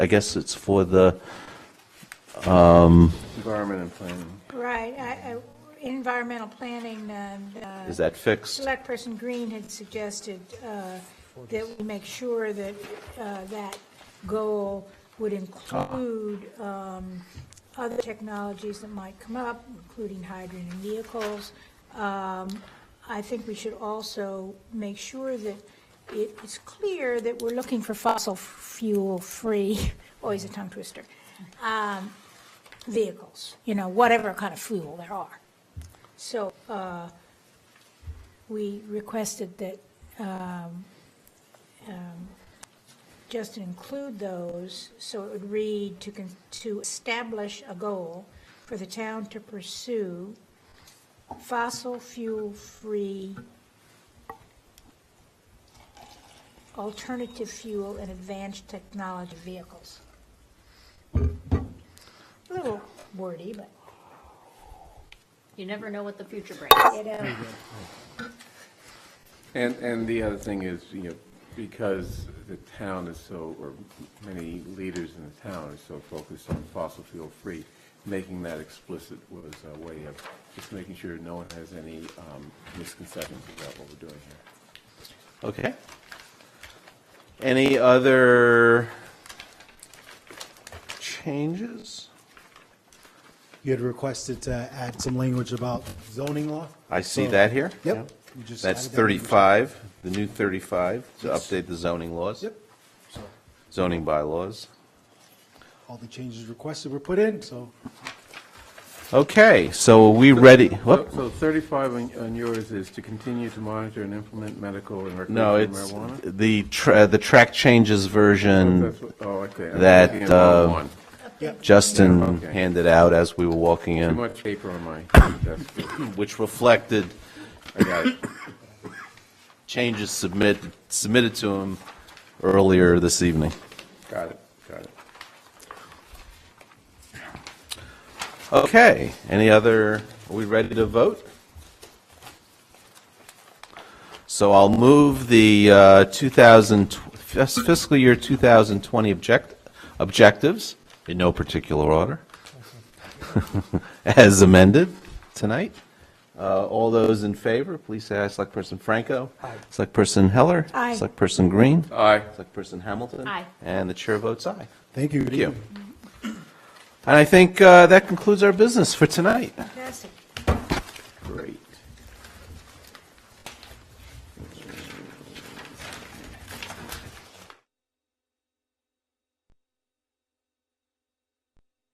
I guess it's for the, Environment and planning. Right, I, I, environmental planning, um, uh, is that fixed? Select Person Green had suggested uh, that we make sure that uh, that goal would include um, other technologies that might come up, including hydrogen and vehicles. Um, I think we should also make sure that it- it's clear that we're looking for fossil fuel-free, always a tongue twister, um, vehicles, you know, whatever kind of fuel there are. So uh, we requested that um, um, just include those, so it would read to, con- to establish a goal for the town to pursue fossil fuel-free alternative fuel and advanced technology vehicles. A little wordy, but, You never know what the future brings. you know, And, and the other thing is, you know, because the town is so, or many leaders in the town are so focused on fossil fuel free, making that explicit was a way of just making sure no one has any um, misconceptions about what we're doing here. Okay. Any other changes? You had requested to add some language about zoning law? I see So- that here. Yep. You just That's added that language. 35, the new 35, to update the zoning laws. Yep. So Zoning bylaws. all the changes requested were put in, so Okay, so are we ready? So- Whoop. So 35 on on yours is to continue to monitor and implement medical and No, recreational it's marijuana? the, tra- the track changes version That's what- Oh, okay. I'm that, looking at wrong uh, one. Justin Okay. handed out as we were walking Too in, much paper on my desk. which reflected I got it. changes submit, submitted to him earlier this evening. Got it, got it. Okay, any other, are we ready to vote? So I'll move the uh, 2000, fis- fiscal year 2020 object, objectives, in no particular order, as amended tonight. Uh, All those in favor, please say aye. Selectperson Franco? Aye. Selectperson Heller? Aye. Selectperson Green? Aye. Selectperson Hamilton? Aye. And the chair votes aye. thank you. Thank you. And I think uh, that concludes our business for tonight. fantastic.